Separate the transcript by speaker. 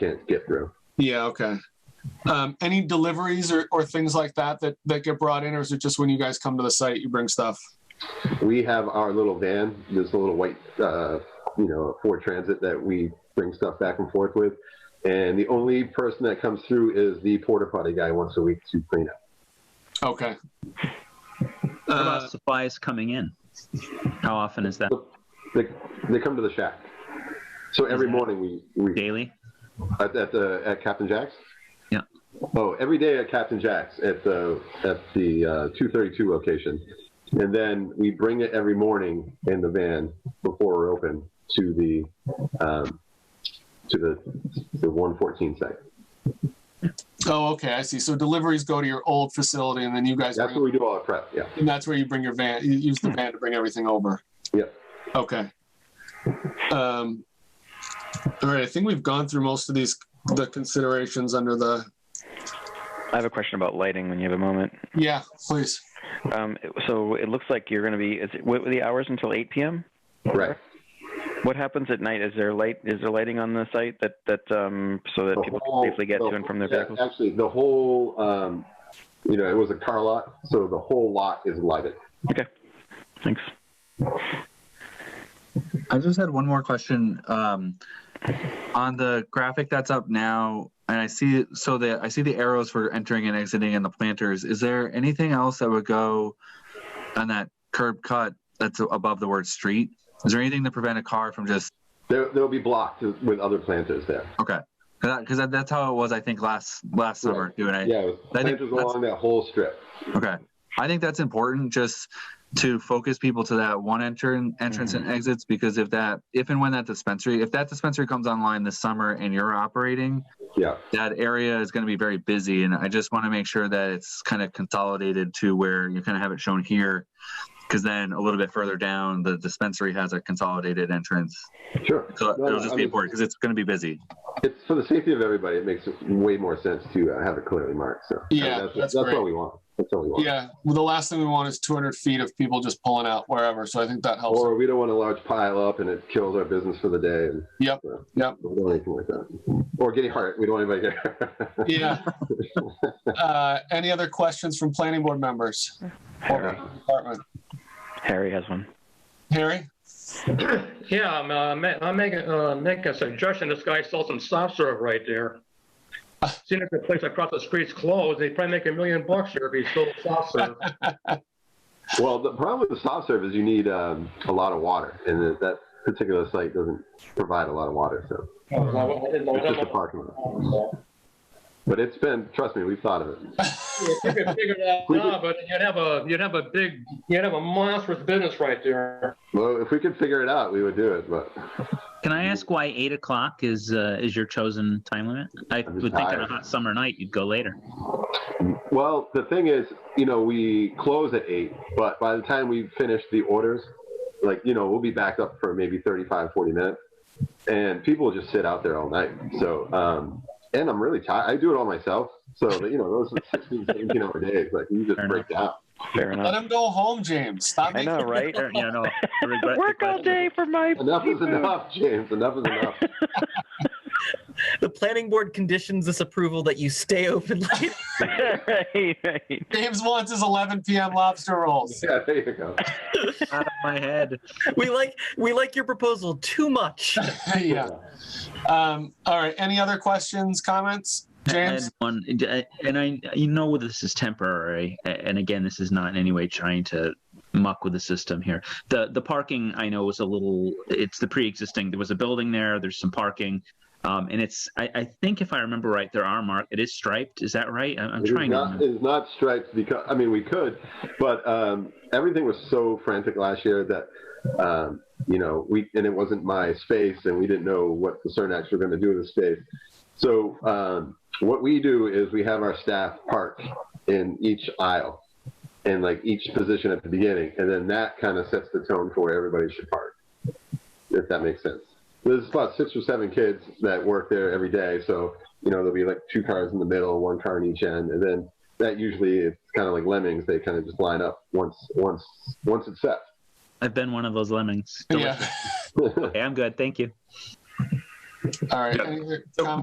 Speaker 1: can't get through.
Speaker 2: Yeah, okay. Um, any deliveries or, or things like that, that that get brought in, or is it just when you guys come to the site you bring stuff?
Speaker 1: We have our little van, this little white, uh, you know, Ford Transit that we bring stuff back and forth with. And the only person that comes through is the porta potty guy once a week to clean up.
Speaker 2: Okay.
Speaker 3: What
Speaker 2: Uh,
Speaker 3: about supplies coming in? How often is that?
Speaker 1: They, they come to the shack. So every
Speaker 3: that-
Speaker 1: morning we, we
Speaker 3: Daily?
Speaker 1: at, at the at Captain Jack's.
Speaker 3: Yeah.
Speaker 1: Oh, every day at Captain Jack's at the at the uh, 232 location, and then we bring it every morning in the van before we're open to the um, to the the 114 site.
Speaker 2: Oh, okay, I see. So deliveries go to your old facility, and then you guys
Speaker 1: That's
Speaker 2: bring
Speaker 1: where we do all our prep. Yeah.
Speaker 2: And that's where you bring your van, you use the van to bring everything over.
Speaker 1: Yep.
Speaker 2: Okay. Um, all right, I think we've gone through most of these, the considerations under the,
Speaker 4: I have a question about lighting when you have a moment.
Speaker 2: yeah, please.
Speaker 4: Um, so it looks like you're going to be. Is it, what were the hours until 8 p.m.?
Speaker 1: Right.
Speaker 4: What happens at night? Is there light? Is there lighting on the site that that um, so that
Speaker 1: The
Speaker 4: people
Speaker 1: whole-
Speaker 4: can safely get
Speaker 1: the-
Speaker 4: to and from their
Speaker 1: yeah,
Speaker 4: vehicles?
Speaker 1: Actually, the whole um, you know it was a car lot, so the whole lot is lighted.
Speaker 4: Thanks.
Speaker 5: I just had one more question. Um, on the graphic that's up now, and I see so the I see the arrows for entering and exiting and the planters. Is there anything else that would go on that curb cut that's above the word street? Is there anything to prevent a car from just
Speaker 1: There, they'll be blocked with other planters there.
Speaker 5: okay? Because that, that's how it was, I think last last
Speaker 1: Right.
Speaker 5: summer. Doing it,
Speaker 1: Yeah, it was
Speaker 5: I think
Speaker 1: planters
Speaker 5: that's-
Speaker 1: along that whole strip.
Speaker 5: Okay. I think that's important just to focus people to that one enter entrance
Speaker 1: Mm-hmm.
Speaker 5: and exits because if that if and when that dispensary if that dispensary comes online this summer and you're operating,
Speaker 1: Yeah.
Speaker 5: that area is going to be very busy and I just want to make sure that it's kind of consolidated to where you kind of have it shown here because then a little bit further down the dispensary has a consolidated entrance.
Speaker 1: Sure.
Speaker 5: So
Speaker 1: No, no,
Speaker 5: it'll just
Speaker 1: I
Speaker 5: be
Speaker 1: mean-
Speaker 5: important because it's going to be busy.
Speaker 1: It's for the safety of everybody. It makes way more sense to uh, have it clearly marked. So
Speaker 2: Yeah,
Speaker 1: that's,
Speaker 2: that's
Speaker 1: that's,
Speaker 2: great.
Speaker 1: what we want. That's what we want.
Speaker 2: Yeah, well, the last thing we want is 200 feet of people just pulling out wherever, so I think that helps.
Speaker 1: Or we don't want a large pile up and it kills our business for the day. And,
Speaker 2: Yep,
Speaker 1: so,
Speaker 2: yep.
Speaker 1: We don't want anything like that. Or getting hurt. We don't want anybody getting
Speaker 2: Yeah. Uh, any other questions from planning board members?
Speaker 4: Harry,
Speaker 2: Department.
Speaker 4: Harry has one.
Speaker 2: Harry?
Speaker 6: Yeah, I'm, uh, ma- I'm making, uh, making a suggestion. This guy sells some soft serve right there. Seeing if the place across the street's closed, they probably make a million bucks here if he sold soft serve.
Speaker 1: well, the problem with the soft serve is you need um, a lot of water, and that- that particular site doesn't provide a lot of water. So it's just a
Speaker 6: If
Speaker 1: parking lot. But it's been, trust me, we've thought of it.
Speaker 6: you could figure that out, but you'd have a, you'd have a big, you'd have a monstrous business right there.
Speaker 1: Well, if we could figure it out, we would do it. But
Speaker 3: Can I ask why eight o'clock is uh, is your chosen time limit? I
Speaker 1: I'm just
Speaker 3: would think on a
Speaker 1: tired.
Speaker 3: hot summer night you'd go later.
Speaker 1: Well, the thing is, you know, we close at eight, but by the time we finish the orders, like, you know, we'll be back up for maybe 35, 40 minutes. And people just sit out there all night. So, um, and I'm really tired. I do it all myself. So, you know, those are 16, 17 hour days. Like, you just
Speaker 3: Fair
Speaker 1: break down.
Speaker 4: Fair
Speaker 2: Let
Speaker 4: enough.
Speaker 2: him go home, James. Stop
Speaker 4: I
Speaker 2: making
Speaker 4: know, right?
Speaker 3: There- you know, I regret the
Speaker 4: Work all
Speaker 3: question.
Speaker 4: day for my
Speaker 1: Enough is
Speaker 4: seafood.
Speaker 1: enough, James. Enough is enough.
Speaker 7: The planning board conditions this approval that you stay open late.
Speaker 4: right, right.
Speaker 2: James wants his 11 PM lobster rolls.
Speaker 1: yeah, there you go.
Speaker 3: Out of my head.
Speaker 7: we like we like your proposal too much.
Speaker 2: Yeah. Um, all right. Any other questions, comments?
Speaker 3: I had
Speaker 2: James?
Speaker 3: one, uh, and I, you know, this is temporary, and again, this is not in any way trying to muck with the system here. the The parking, I know, is a little. It's the pre-existing. There was a building there. There's some parking, um, and it's. I, I think if I remember right, there are mark. It is striped. Is that right? I, I'm
Speaker 1: It is
Speaker 3: trying.
Speaker 1: not,
Speaker 3: to,
Speaker 1: It's not striped because I mean we could, but um, everything was so frantic last year that um, you know we and it wasn't my space and we didn't know what the Cernax were going to do with the space. So um, what we do is we have our staff park in each aisle and like each position at the beginning, and then that kind of sets the tone for where everybody should park, if that makes sense. There's about six or seven kids that work there every day, so you know, there'll be like two cars in the middle, one car in each end, and then that usually it's kind of like lemmings. They kind of just line up once, once, once it's set.
Speaker 3: I've been one of those lemmings.
Speaker 2: Yeah.
Speaker 3: Okay, I'm good. Thank you.
Speaker 2: All right. Any other comments?